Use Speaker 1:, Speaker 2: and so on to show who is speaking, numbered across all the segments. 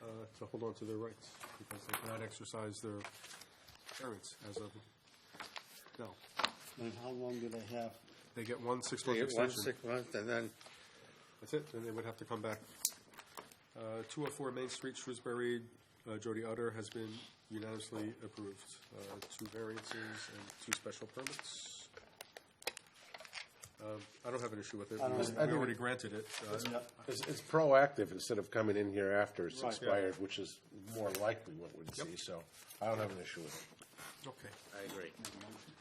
Speaker 1: have uh, to hold on to their rights because they cannot exercise their variance as of now.
Speaker 2: And how long do they have?
Speaker 1: They get one six-month
Speaker 2: They get one
Speaker 1: extension.
Speaker 2: six months, and then,
Speaker 1: That's it, then they would have to come back. Uh, 204 Main Street, Shrewsbury, uh, Jody Utter has been unanimously approved. Uh, Two variances and two special permits. Um, I don't have an issue with it.
Speaker 2: don't-
Speaker 1: We we already granted it. Uh,
Speaker 3: It's, it's proactive instead of coming in here after it's
Speaker 2: Right.
Speaker 3: expired, which is more likely what we'd see, so I don't have an issue with it.
Speaker 1: Okay.
Speaker 3: I agree.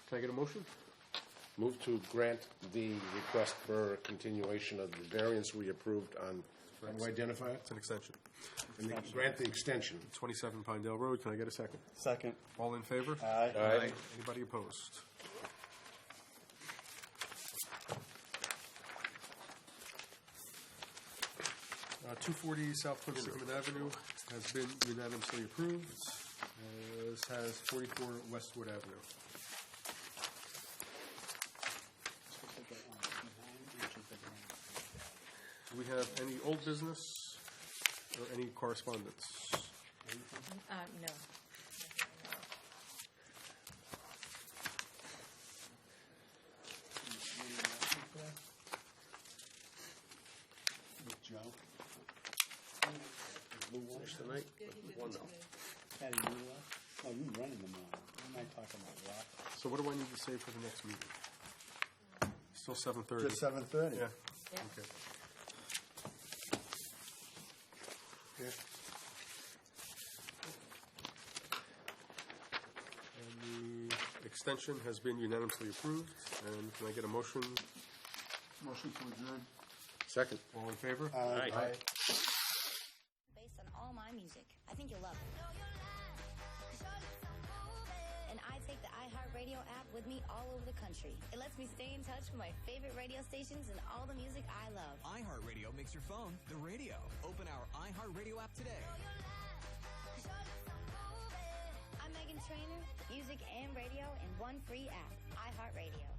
Speaker 1: Can I get a motion?
Speaker 3: Move to grant the request for continuation of the variance we approved on, how do I identify it?
Speaker 1: It's an extension.
Speaker 3: And the- Grant the extension.
Speaker 1: 27 Pinedale Road, can I get a second?
Speaker 2: second,
Speaker 1: All in favor?
Speaker 2: aye.
Speaker 3: Aye.
Speaker 1: Anybody opposed? Uh, 240 South Cliff Sigmund Avenue has been unanimously approved, as has 44 Westwood Avenue. Do we have any old business or any correspondence?
Speaker 4: Uh, no.
Speaker 2: With Joe.
Speaker 3: Tonight?
Speaker 2: Patty, you what? Oh, you running the mile. What am I talking about, Rock?
Speaker 1: So what do I need to say for the next meeting? Still 7:30?
Speaker 2: Just seven thirty.
Speaker 1: Yeah,
Speaker 4: Yeah.
Speaker 1: okay. And the extension has been unanimously approved, and can I get a motion?
Speaker 2: Motion to adjourn.
Speaker 3: Second.
Speaker 1: All in favor?
Speaker 2: Aye.
Speaker 5: based on all my music. I think you'll love it. And I take the iHeartRadio app with me all over the country. It lets me stay in touch with my favorite radio stations and all the music I love.
Speaker 6: iHeartRadio makes your phone the radio. Open our iHeartRadio app today.
Speaker 5: I'm Megan Trainor, music and radio in one free app, iHeartRadio.